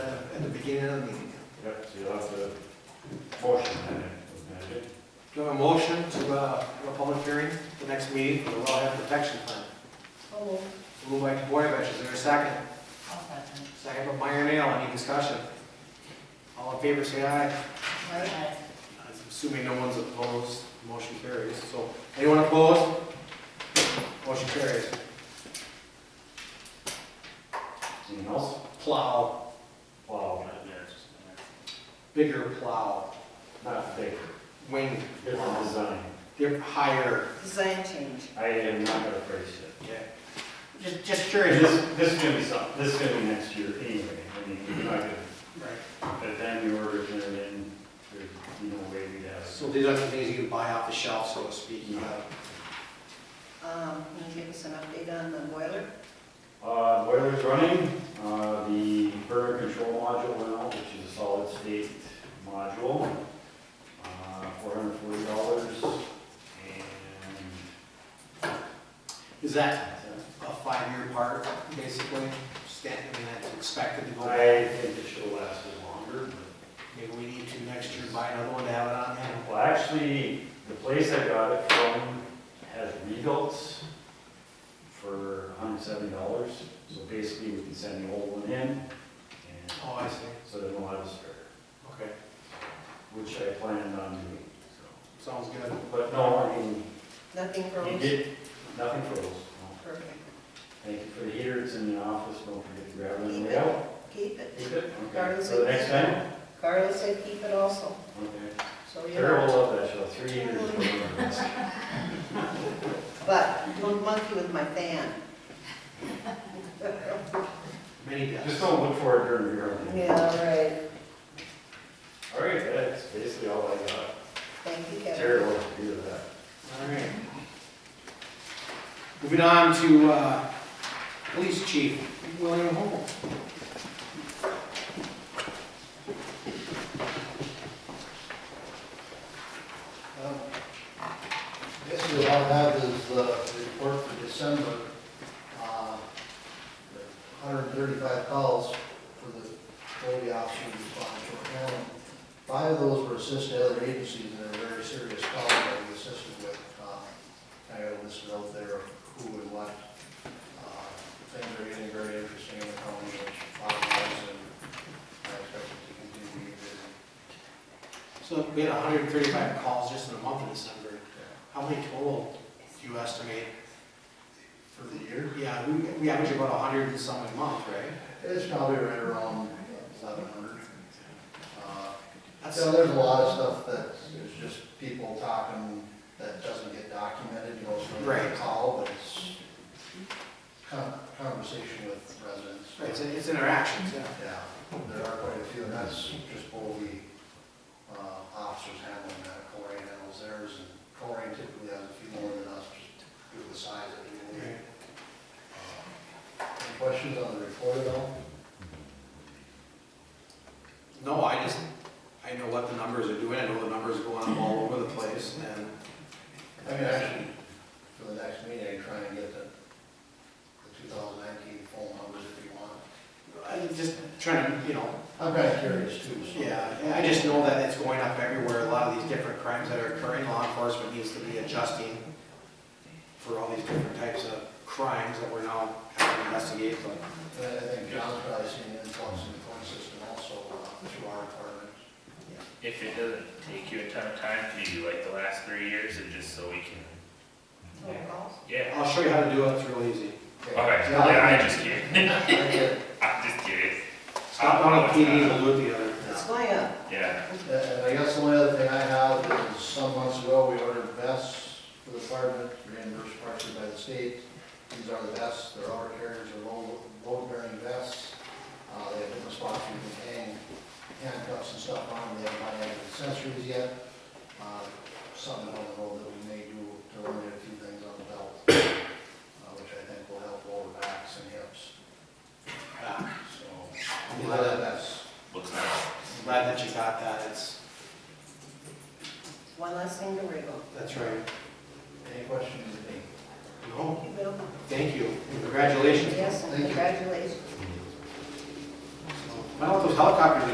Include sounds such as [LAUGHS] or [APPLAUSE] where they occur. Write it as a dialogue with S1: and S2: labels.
S1: uh, in the beginning of the meeting.
S2: Yep, so you'll have to motion then, isn't it?
S1: Do I have a motion to, uh, have a public hearing, the next meeting for the wellhead protection plan?
S3: Oh,
S1: Moved by Boyovich, is there a second?
S3: I'll second.
S1: Second by Meyer Nail, any discussion? All in favor, say aye.
S3: Right.
S1: I'm Assuming no one's opposed, motion carries. So, anyone opposed? Motion carries.
S2: Anything else?
S1: Plow,
S2: Wow,
S1: bigger plow,
S2: not big,
S1: wing,
S2: different design.
S1: they're higher.
S3: Design change.
S2: I am not gonna phrase it.
S1: Yeah. Just, just curious.
S2: This, this is gonna be some, this is gonna be next year anyway, I mean, you're not gonna,
S1: Right.
S2: by the time you order it in, there's no way we have.
S1: So these are the things you can buy off the shelf, so to speak. Uh, you know.
S3: Um, can you give us an update on the boiler?
S2: Uh, boiler's running, uh, the burner control module went out, which is a solid state module, uh, four hundred forty dollars, and
S1: Is that a five-year part, basically? Stand, I mean, that's expected to go.
S2: I think it should have lasted longer,
S1: Maybe we need to next year buy another one to have it on hand.
S2: Well, actually, the place I got it from has rebuilt for hundred seventy dollars. So basically, we can send the old one in, and
S1: Oh, I see.
S2: so there's a lot of spare,
S1: Okay,
S2: which I planned on doing, so.
S1: sounds good.
S2: But no, I mean,
S3: Nothing
S2: you
S3: froze?
S2: did, nothing froze. no.
S3: Perfect.
S2: Thank you for the heater, it's in the office, don't forget to grab it on the way out.
S3: Keep it.
S2: Keep it, okay,
S3: Carlos
S2: so
S3: said
S2: next
S3: keep it.
S2: time,
S3: Carlos said keep it also,
S2: okay.
S3: so you
S2: Sarah will
S3: know.
S2: love that show, three years. [LAUGHS]
S3: But don't monkey with my fan.
S1: Many
S2: Just
S1: deaths.
S2: don't look for it during the year.
S3: Yeah, right.
S2: All right, that's basically all I got.
S3: Thank you, Kevin.
S2: Terry will do that.
S1: All right. Moving on to, uh, Police Chief William Holmes.
S4: Um, Basically, all I have is the the report for December. Uh, 135 calls for the Cody officer to respond to our county. Five of those were assisted by other agencies, and they're very serious calls that we assisted with. Uh, I got a list out there of who and what. Uh, Things are getting very interesting in the county, which follows, and I expect it to continue.
S1: So we had hundred and thirty-five calls just in a month in December.
S4: Yeah.
S1: How many total do you estimate?
S4: For the year,
S1: Yeah, we, we average about hundred and some a month, right?
S4: It's probably right around eleven hundred.
S1: That's-
S4: So there's a lot of stuff that is just people talking that doesn't get documented, you know, it's not
S1: Right.
S4: a call, but it's con- conversation with residents.
S1: Right, it's, it's interactions, yeah.
S4: Yeah, there are quite a few, and that's just Bowlby, uh, officers handling that, Corey handles theirs, and Corey typically has a few more than us, just due to the size of the unit. Uh, Any questions on the report at all?
S1: No, I just, I know what the numbers are doing, I know the numbers are going up all over the place, and
S4: I mean, actually, for the next meeting, I try and get the, the two thousand nineteen phone numbers if you want.
S1: I'm just trying to, you know,
S4: I'm kind of curious too, so.
S1: yeah, I just know that it's going up everywhere, a lot of these different crimes that are occurring, law enforcement needs to be adjusting for all these different types of crimes that we're now having to investigate, but,
S4: And I think John's probably seen an influx in the phone system also uh, through our department.
S5: If it doesn't take you a ton of time, can you do like the last three years and just so we can,
S3: Phone calls?
S5: yeah.
S1: I'll show you how to do it, it's real easy.
S4: Okay,
S5: Okay, yeah, I'm just kidding. [LAUGHS]
S4: [LAUGHS] Okay.
S5: I'm just kidding.
S1: Stop on a PD, we'll do it the other.
S3: It's uh, going up.
S5: Yeah,
S4: And Uh, I guess the only other thing I have is some months ago, we ordered vests for the department, reimbursed partially by the state. These are the vests, they're our carriers, they're load, load bearing vests. Uh, they have different spots you can hang handcuffs and stuff on, they haven't got any accessories yet. Uh, Something on the road that we may do to eliminate a few things on the belt, uh, which I think will help lower backs and hips,
S1: Yeah.
S4: so. we love that vest.
S5: looks nice.
S1: I'm Glad that you got that, it's,
S3: One less thing to worry about.
S1: that's right.
S4: Any questions, Dave?
S1: No,
S3: You will?
S1: thank you, congratulations.
S3: Yes, and
S4: Thank you.
S3: congratulations.
S1: So, I don't know if those helicopters